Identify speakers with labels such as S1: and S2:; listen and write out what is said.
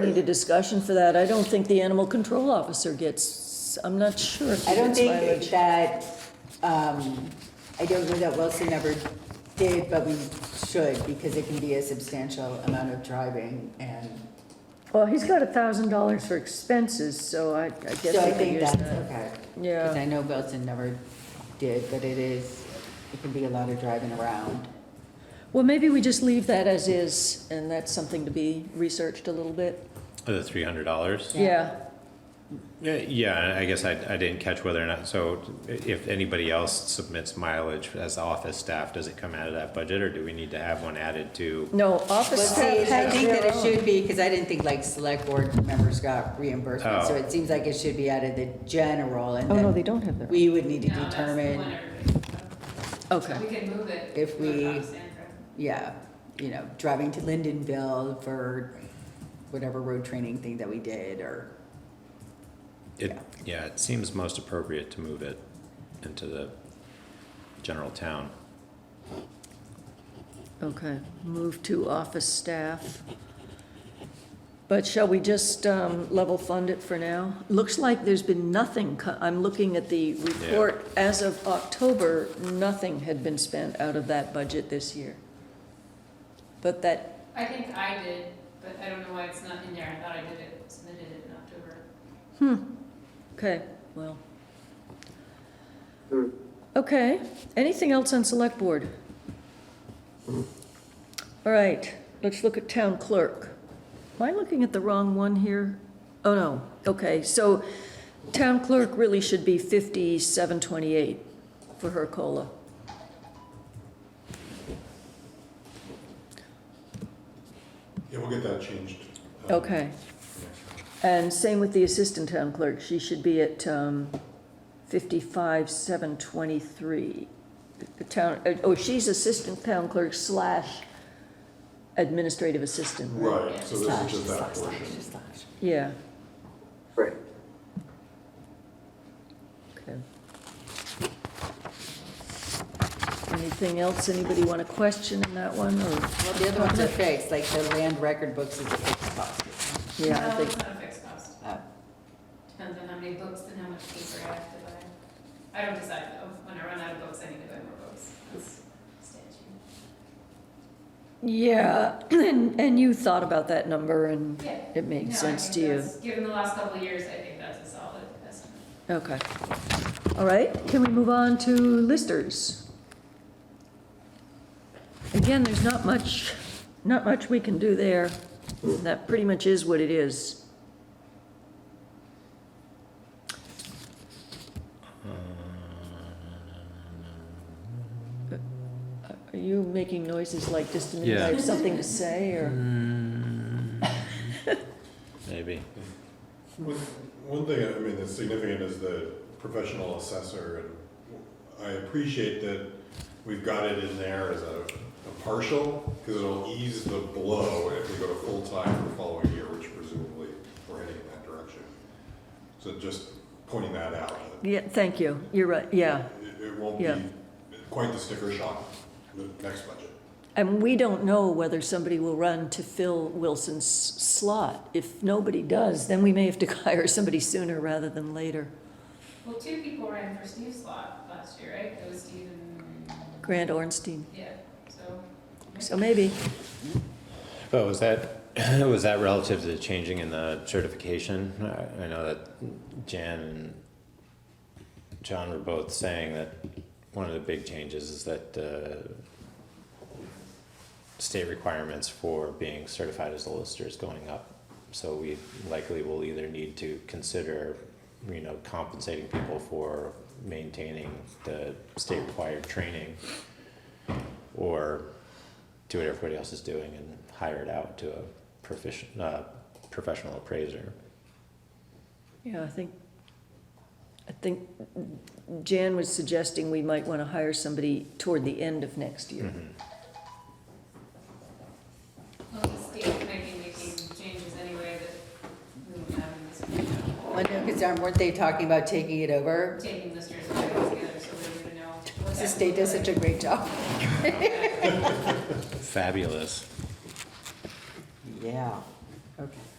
S1: Need a discussion for that. I don't think the animal control officer gets, I'm not sure if
S2: I
S1: he
S2: don't
S1: gets
S2: think
S1: mileage.
S2: that, um, I don't know that Wilson ever did, but we should, because it can be a substantial amount of driving, and
S1: Well, he's got a thousand dollars for expenses, so I, I guess
S2: so I
S1: we could
S2: think
S1: use
S2: that's
S1: that.
S2: okay.
S1: Yeah.
S2: Because I know Wilson never did, but it is, it can be a lot of driving around.
S1: Well, maybe we just leave that as is, and that's something to be researched a little bit.
S3: The three hundred dollars?
S2: Yeah.
S1: Yeah,
S3: Yeah, and I guess I, I didn't catch whether or not, so if anybody else submits mileage as office staff, does it come out of that budget or do we need to have one added to?
S1: no, office
S2: Let's see,
S1: staff
S2: I
S1: has
S2: think that
S1: their
S2: it
S1: own.
S2: should be, because I didn't think like select board members got reimbursement, so
S3: Oh.
S2: it seems like it should be out of the general, and
S1: Oh, no,
S2: then
S1: they don't have their own.
S2: we would need to
S4: No, that's the one
S2: determine,
S4: everybody-
S1: Okay.
S4: We can move it.
S2: If
S4: to the
S2: we-
S4: top standard.
S2: yeah, you know, driving to Lindenville for whatever road training thing that we did, or,
S3: It, yeah, it seems most appropriate to move it into the general town.
S1: Okay, move to office staff. But shall we just um, level fund it for now? Looks like there's been nothing, co- I'm looking at the report, as of October, nothing had been spent out of that budget this year. But that,
S4: I think I did, but I don't know why it's not in there. I thought I did it, submitted it in October.
S1: okay, well. Okay, anything else on select board? All right, let's look at town clerk. Am I looking at the wrong one here? Oh, no, okay, so town clerk really should be fifty-seven twenty-eight for her COLA.
S5: Yeah, we'll get that changed. um,
S1: Okay, and same with the assistant town clerk, she should be at, um, fifty-five seven twenty-three. The town, uh, oh, she's assistant town clerk slash administrative assistant, right?
S5: Right, so this is
S2: slash,
S5: just that
S2: slash,
S5: portion.
S2: slash, slash.
S1: Yeah,
S6: Right.
S1: okay. Anything else anybody want to question in that one, or,
S2: Well, the other ones are fixed, like the land record books is a fixed cost.
S1: yeah, I
S4: No,
S1: think,
S4: It's not a fixed cost.
S2: Uh,
S4: Depends on how many books and how much paper I have to buy. I don't decide though. When I run out of books, I need to buy more books. That's statute.
S1: yeah, and, and you thought about that number, and
S4: Yeah.
S1: it
S4: No, I
S1: made sense
S4: think
S1: to you.
S4: that's- Given the last couple of years, I think that's a solid estimate.
S1: Okay. All right, can we move on to listers? Again, there's not much, not much we can do there. That pretty much is what it is. Are you making noises like just to mean I have
S3: Yeah.
S1: something to say, or?
S3: Maybe.
S5: One one thing, I mean, that's significant is the professional assessor, and I appreciate that we've got it in there as a a partial, because it'll ease the blow if we go to full-time for the following year, which presumably we're heading in that direction. So just pointing that out,
S1: Yeah, thank you, you're right, yeah.
S5: it it won't
S1: Yeah.
S5: be quite the sticker shock the next budget.
S1: And we don't know whether somebody will run to fill Wilson's slot. If nobody does, then we may have to hire somebody sooner rather than later.
S4: Well, two people ran for Steve's slot last year, right? It was Steve and,
S1: Grant Ornstein.
S4: yeah, so.
S1: So maybe,
S3: But Oh, was that, was that relative to the changing in the certification? I- I know that Jan and John were both saying that one of the big changes is that uh, state requirements for being certified as a lister is going up. So we likely will either need to consider, you know, compensating people for maintaining the state required training or do what everybody else is doing and hire it out to a proficient, uh, professional appraiser.
S1: yeah, I think, I think Jan was suggesting we might want to hire somebody toward the end of next year.
S4: Well, the state might be making changes anyway that we won't have in this meeting.
S2: Because um, weren't they talking about taking it over?
S4: Taking listers and putting it together so we would know. what's
S2: The state does such a great job.
S3: Fabulous.
S2: Yeah, okay.